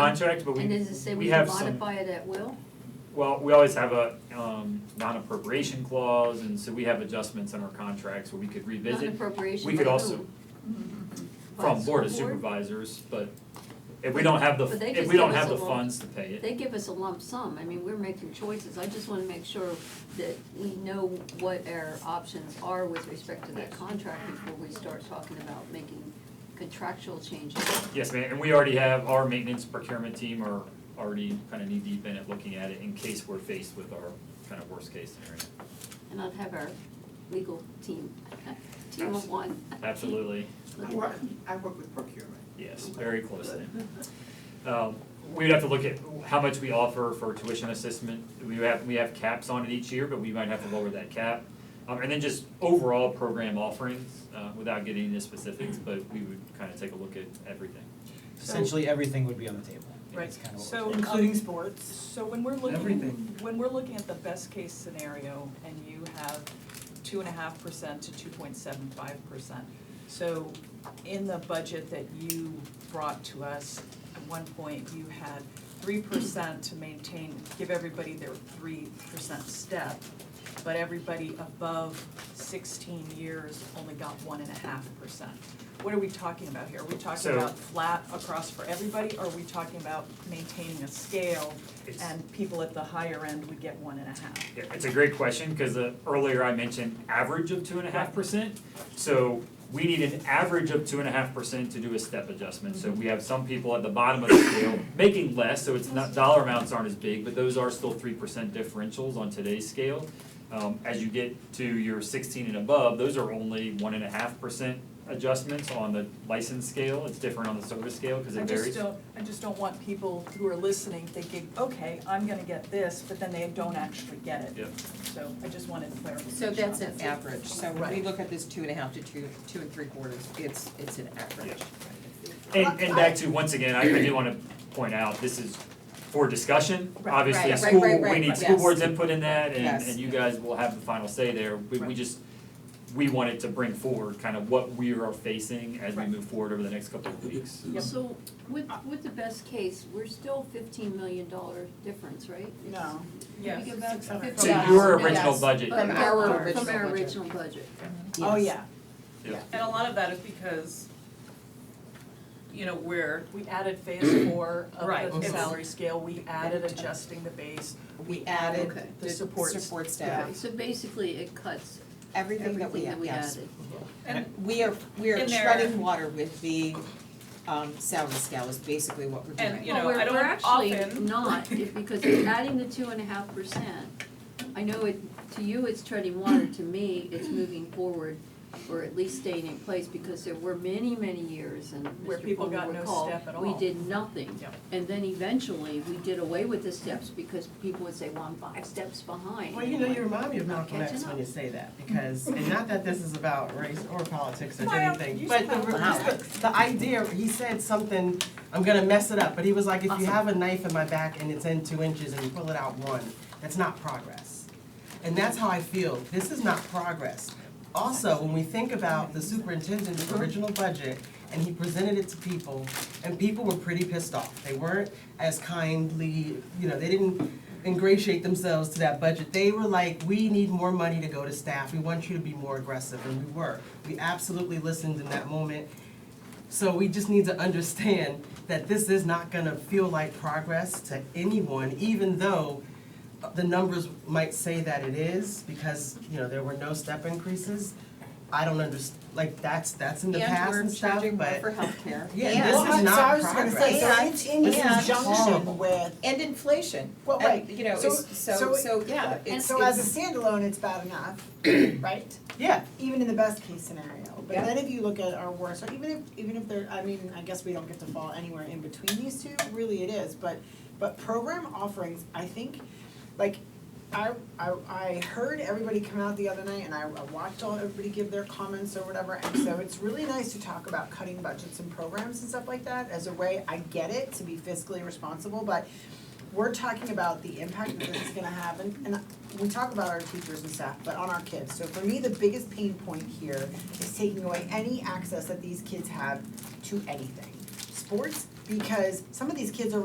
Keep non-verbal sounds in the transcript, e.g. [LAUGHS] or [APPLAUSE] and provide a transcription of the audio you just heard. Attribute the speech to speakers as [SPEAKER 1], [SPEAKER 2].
[SPEAKER 1] contract, but we,
[SPEAKER 2] And does it say
[SPEAKER 1] we
[SPEAKER 2] we
[SPEAKER 1] have
[SPEAKER 2] can
[SPEAKER 1] some,
[SPEAKER 2] modify it at will?
[SPEAKER 1] well, we always have a, um, non-appropriation clause, and so we have adjustments in our contracts where we could revisit.
[SPEAKER 2] Non-appropriation
[SPEAKER 1] We could
[SPEAKER 2] by
[SPEAKER 1] also,
[SPEAKER 2] who? By
[SPEAKER 1] from
[SPEAKER 2] the
[SPEAKER 1] Board of
[SPEAKER 2] school
[SPEAKER 1] Supervisors, but if we don't have the,
[SPEAKER 2] But they
[SPEAKER 1] if
[SPEAKER 2] just
[SPEAKER 1] we don't
[SPEAKER 2] give us
[SPEAKER 1] have the
[SPEAKER 2] a lump.
[SPEAKER 1] funds to pay it,
[SPEAKER 2] They give us a lump sum, I mean, we're making choices, I just wanna make sure that we know what our options are with respect to that contract before we start talking about making contractual changes.
[SPEAKER 1] yes, ma'am, and we already have, our maintenance procurement team are already kind of knee-deep in it, looking at it in case we're faced with our kind of worst-case scenario.
[SPEAKER 2] And I'd have our legal team, team of one.
[SPEAKER 1] Absolutely.
[SPEAKER 2] Look
[SPEAKER 3] I
[SPEAKER 2] at
[SPEAKER 3] work,
[SPEAKER 2] that.
[SPEAKER 3] I work with procurement.
[SPEAKER 1] Yes, very closely. Um, We'd have to look at how much we offer for tuition assessment. We have, we have caps on it each year, but we might have to lower that cap. Um, And then just overall program offerings, uh, without getting into specifics, but we would kind of take a look at everything.
[SPEAKER 4] Essentially, everything would be on the table.
[SPEAKER 5] Right.
[SPEAKER 4] That's kind of what we're
[SPEAKER 5] So,
[SPEAKER 4] saying.
[SPEAKER 5] including
[SPEAKER 3] sports.
[SPEAKER 5] So when we're looking,
[SPEAKER 3] Everything.
[SPEAKER 5] when we're looking at the best case scenario and you have two and a half percent to two point seven five percent. So in the budget that you brought to us, at one point you had three percent to maintain, give everybody their three percent step. But everybody above sixteen years only got one and a half percent. What are we talking about here? Are we talking
[SPEAKER 1] So-
[SPEAKER 5] about flat across for everybody? Or are we talking about maintaining a scale
[SPEAKER 1] It's-
[SPEAKER 5] and people at the higher end would get one and a half.
[SPEAKER 1] Yeah, it's a great question, because earlier I mentioned average of two and a half percent. So we need an average of two and a half percent to do a step adjustment. So we have some people at the bottom of the scale making less, so it's not, dollar amounts aren't as big, but those are still three percent differentials on today's scale. Um, as you get to your sixteen and above, those are only one and a half percent adjustments on the license scale. It's different on the service scale, because
[SPEAKER 5] I
[SPEAKER 1] it varies.
[SPEAKER 5] just don't, I just don't want people who are listening thinking, okay, I'm gonna get this, but then they don't actually get it.
[SPEAKER 1] Yep.
[SPEAKER 5] So I just wanted clarification.
[SPEAKER 6] So that's
[SPEAKER 5] on
[SPEAKER 6] an
[SPEAKER 5] that.
[SPEAKER 6] average, so when we
[SPEAKER 5] Right.
[SPEAKER 6] look at this two and a half to two, two and three quarters, it's, it's an average.
[SPEAKER 1] And, and back to, once again, I, I do wanna point out, this is for discussion.
[SPEAKER 5] Right,
[SPEAKER 1] Obviously, a
[SPEAKER 6] right,
[SPEAKER 1] school,
[SPEAKER 6] right, right,
[SPEAKER 1] we need
[SPEAKER 6] right,
[SPEAKER 1] school
[SPEAKER 6] yes.
[SPEAKER 1] board's input in that, and,
[SPEAKER 6] Yes.
[SPEAKER 1] and you guys will have the final say there. We, we
[SPEAKER 5] Right.
[SPEAKER 1] just, we wanted to bring forward kind of what we are facing as we
[SPEAKER 5] Right.
[SPEAKER 1] move forward over the next couple of weeks.
[SPEAKER 5] Yep.
[SPEAKER 2] So with, with the best case, we're still fifteen million dollar difference, right?
[SPEAKER 3] No.
[SPEAKER 5] Yes.
[SPEAKER 2] Think about
[SPEAKER 3] $600,000.
[SPEAKER 1] To
[SPEAKER 2] $50,000.
[SPEAKER 1] your
[SPEAKER 6] Yes.
[SPEAKER 1] original budget.
[SPEAKER 6] From our original
[SPEAKER 2] From our
[SPEAKER 6] budget.
[SPEAKER 2] original budget.
[SPEAKER 5] Oh,
[SPEAKER 6] Yes.
[SPEAKER 5] yeah,
[SPEAKER 7] And a lot of that is because, you know, we're,
[SPEAKER 5] we added phase four
[SPEAKER 7] Right,
[SPEAKER 5] of the
[SPEAKER 7] it's-
[SPEAKER 5] salary scale, we added adjusting the base,
[SPEAKER 6] We added
[SPEAKER 2] Okay.
[SPEAKER 5] the
[SPEAKER 6] the
[SPEAKER 5] supports.
[SPEAKER 6] support
[SPEAKER 2] Okay,
[SPEAKER 6] staff,
[SPEAKER 2] so basically it cuts
[SPEAKER 6] everything that we,
[SPEAKER 2] everything that we
[SPEAKER 6] yes.
[SPEAKER 2] added.
[SPEAKER 7] and,
[SPEAKER 6] We are, we are
[SPEAKER 7] In there-
[SPEAKER 6] treading water with the, um, salary scale is basically what we're
[SPEAKER 7] And,
[SPEAKER 6] doing.
[SPEAKER 7] you know, I don't
[SPEAKER 2] Well, we're, we're actually
[SPEAKER 5] [LAUGHS]
[SPEAKER 7] often-
[SPEAKER 2] not, if- because if adding the two and a half percent, I know it, to you it's treading water, to me, it's moving forward, or at least staying in place, because there were many, many years, and
[SPEAKER 5] Where
[SPEAKER 2] Mr.
[SPEAKER 5] people
[SPEAKER 2] Fuller
[SPEAKER 5] got no
[SPEAKER 2] recalled,
[SPEAKER 5] step at
[SPEAKER 2] we
[SPEAKER 5] all.
[SPEAKER 2] did nothing.
[SPEAKER 5] Yep.
[SPEAKER 2] And then eventually, we did away with the steps, because people would say, well, I'm five steps behind.
[SPEAKER 3] Well, you know, you remind me of Malcolm X
[SPEAKER 2] Catching
[SPEAKER 3] when
[SPEAKER 2] up.
[SPEAKER 3] you say that, because, and not that this is about race or politics or
[SPEAKER 5] Well,
[SPEAKER 3] anything,
[SPEAKER 5] you
[SPEAKER 3] but the,
[SPEAKER 5] said
[SPEAKER 3] just the, the idea, he said something, I'm gonna mess it up, but he was like, if you have a knife in my back and it's in two inches and you pull it out one, that's not progress. And that's how I feel, this is not progress. Also, when we think about the superintendent's original budget, and he presented it to people, and people were pretty pissed off. They weren't as kindly, you know, they didn't ingratiate themselves to that budget. They were like, we need more money to go to staff, we want you to be more aggressive, and we were. We absolutely listened in that moment, so we just need to understand that this is not gonna feel like progress to anyone, even though the numbers might say that it is, because, you know, there were no step increases. I don't underst, like, that's, that's in the past and stuff,
[SPEAKER 6] And we're charging
[SPEAKER 3] but,
[SPEAKER 6] more for healthcare.
[SPEAKER 3] yeah, this is
[SPEAKER 8] Well, I-
[SPEAKER 3] not
[SPEAKER 8] so I was gonna say,
[SPEAKER 3] progress.
[SPEAKER 8] so it's in
[SPEAKER 3] This is horrible.
[SPEAKER 8] conjunction with,
[SPEAKER 6] And inflation,
[SPEAKER 8] Well,
[SPEAKER 6] and,
[SPEAKER 8] right.
[SPEAKER 6] you know,
[SPEAKER 8] So-
[SPEAKER 6] it's, so,
[SPEAKER 8] so-
[SPEAKER 6] so, yeah,
[SPEAKER 8] and
[SPEAKER 6] it's,
[SPEAKER 8] so as
[SPEAKER 6] it's,
[SPEAKER 8] a standalone, it's bad
[SPEAKER 3] [CLEARS THROAT]
[SPEAKER 8] enough, right?
[SPEAKER 3] Yeah,
[SPEAKER 8] Even in the best case scenario, but
[SPEAKER 6] Yeah.
[SPEAKER 8] then if you look at our worst, or even if, even if there, I mean, I guess we don't get to fall anywhere in between these two, really it is, but, but program offerings, I think, like, I, I, I heard everybody come out the other night and I I watched all, everybody give their comments or whatever, and so it's really nice to talk about cutting budgets and programs and stuff like that as a way, I get it, to be fiscally responsible, but we're talking about the impact that this is gonna have, and, and we talk about our teachers and staff, but on our kids, so for me, the biggest pain point here is taking away any access that these kids have to anything. Sports, because some of these kids are